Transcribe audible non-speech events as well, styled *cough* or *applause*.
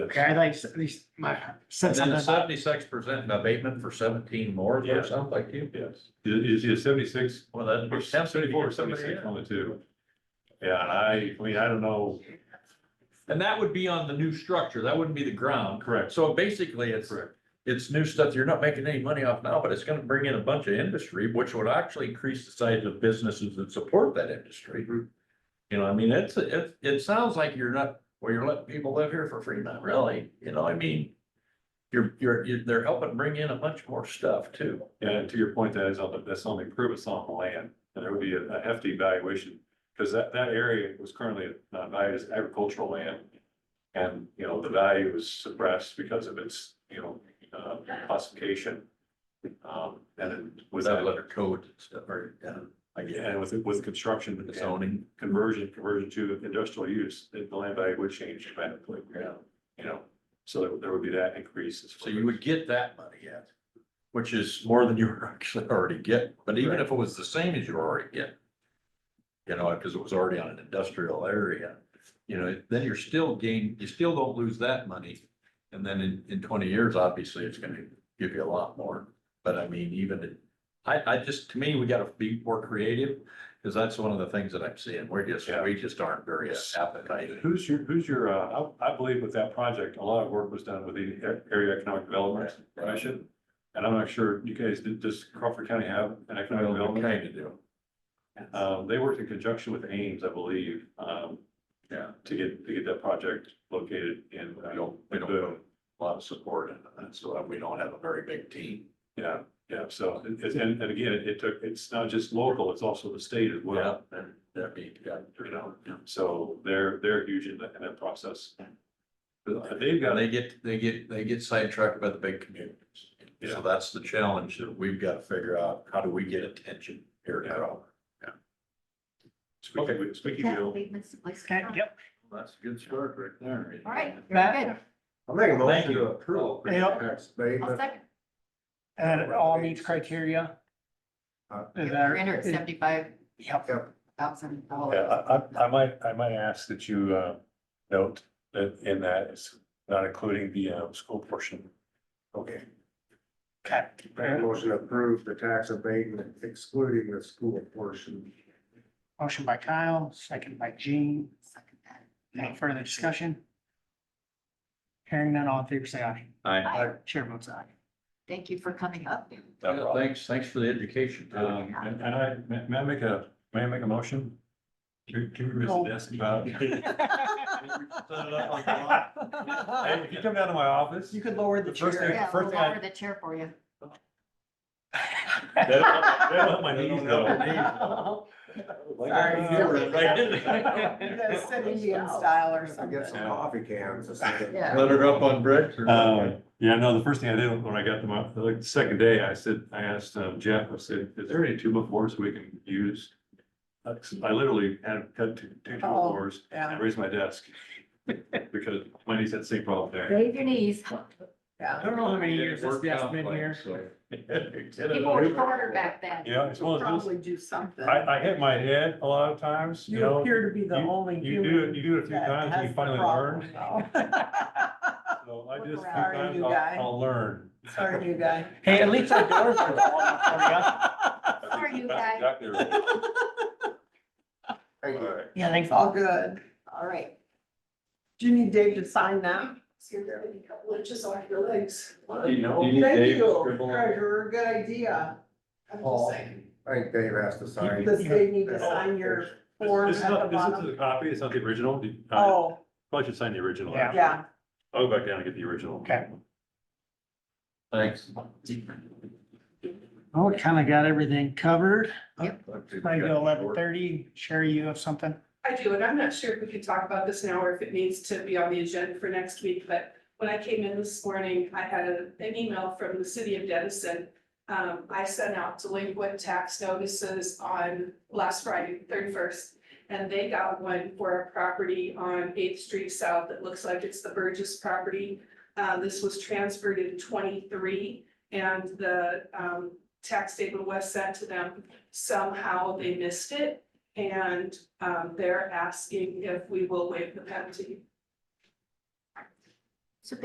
Okay, I like, at least my sense of *laughs* Then that. seventy-six percent abatement for seventeen more Yeah. or something like you. Yes, is, is seventy-six, Well, that. or seventy-four, or seventy-six on the two? Yeah, I, I mean, I don't know, And that would be on the new structure. That wouldn't be the ground. correct, So basically, it's, correct, it's new stuff. You're not making any money off now, but it's gonna bring in a bunch of industry, which would actually increase the size of businesses that support that industry. Mm-hmm. You know, I mean, it's, it, it sounds like you're not, well, you're letting people live here for free, not really, you know, I mean. You're, you're, you're- they're helping bring in a bunch more stuff too. and to your point, that is on the, that's on the improvements on the land, and there would be a hefty valuation. Cause that, that area was currently not valued as agricultural land, and, you know, the value was suppressed because of its, you know, uh, classification. Um, and then with Without that, letter code and stuff, or, uh, I guess, and with, with construction the and zoning. conversion, conversion to industrial use, the the land value would change dramatically. Yeah. You know, so there- there would be that increase. So you would get that money, yeah. Which is more than you *laughs* were actually already get, but even if it was the same as you were already get. You know, because it was already on an industrial area, you know, then you're still gain, you still don't lose that money. And then in, in twenty years, obviously, it's gonna give you a lot more, but I mean, even, in- I, I just, to me, we gotta be more creative. Cause that's one of the things that I'm seeing, we're just, Yeah. we just aren't very appetizing. Who's your, who's your, uh, I, I believe with that project, a lot of work was done with the A- Area Economic Development Yeah. Commission. And I'm not sure, you guys, did- does Crawford County have an economic Well, we development? kind of do, Um, they worked in conjunction with Ames, I believe, um, yeah. to get, to get that project located in. uh, We don't, we don't have a lot of support in that, so we don't have a very big team. Yeah, yeah, so, it- it's- and, and again, it it took, it's not just local, it's also the state as well. And that'd be, yeah, you know, so they're, they're huge in that, in that process. But They've And got, they get, they get, they get sidetracked by the big communities. Yeah. So that's the challenge that we've got to figure out, how do we get attention here at all? speaking, of- speaking Yeah, of, we missed like- Okay, yep. That's a good start right there. Oh, All right, very Matt? good. I'll make a Thank motion you. to approve. Yeah. Tax I'll abatement. second. And it all meets criteria? Huh? Is You're under that? at seventy-five Yep. thousand yeah, dollars. I, I, I might, I might ask that you, uh, note that in that it's not including the, um, school portion. Okay, Okay. make a motion to approve the tax abatement excluding the school portion. Motion by Kyle, second by Gene. Second that. Any further discussion? Hearing none, all in favor, say aye. Aye. Chair votes *laughs* aye. Thank you for coming up. No Yeah, problem. Thanks, thanks for the education. Tom. Um, and, and I, may, may I make a, may I make a motion? Can, can we No. just ask about? Hey, if you come down to my office. could lower The first thing, Yeah, we'll first thing I lower the chair for you. *laughs* They don't have- they don't have my knees though. style or I get some Yeah. coffee cans. or something. Yeah. Let her up on bricks or? Um, yeah, no, the first thing I did when I got them up, like the second day, I said, I asked um, Jeff, I said, is there any tuba floors we can use? Uh, 'cause I literally had cut two, two tuba Uh-oh. Oh. floors and raised my *laughs* desk. Because my niece had the same problem there. Save your knees. I don't know how many years this Worked desk out been like, *laughs* here. so. People were shorter back then. Yeah, it's one of those, probably do something. I, I hit my head a lot of times, you You know, appear to be the you- only you do human it- you do it a few that times and you has the finally problem learn. *laughs* now. so I just, few Sorry, times you guy. I'll, I'll learn. Sorry, new guy. Hey, at least our doors are long Sorry, you That's guy. Exactly right. Thank you. All right. *laughs* Yeah, thanks. It's all good. All right. Do you need Dave to sign that? Do you know? Thank you, treasurer, good idea. I'm just saying, I think Dave has to sign. does Dave Oh, need to sign your form This at is the not, this bottom? is a copy, it's not the original. Do you- uh, Oh, Probably should sign the original. Yeah. yeah, I'll go back down and get the original. Okay. Thanks. Oh, we kind of got everything covered. Might Might go eleven thirty. Sherry, you have something? I do, and I'm not sure if we could talk about this now or if it needs to be on the agenda for next week, but when I came in this morning, I had a- an email from the city of Denison. Um, I sent out delinquent tax notices on last Friday, thirty-first, and they got one for a property on Eighth Street South that looks like it's the Burgess property. Uh, this was transferred in twenty-three, and the, um, tax statement was sent to them. Somehow they missed it, and um, they're asking if we will waive the penalty.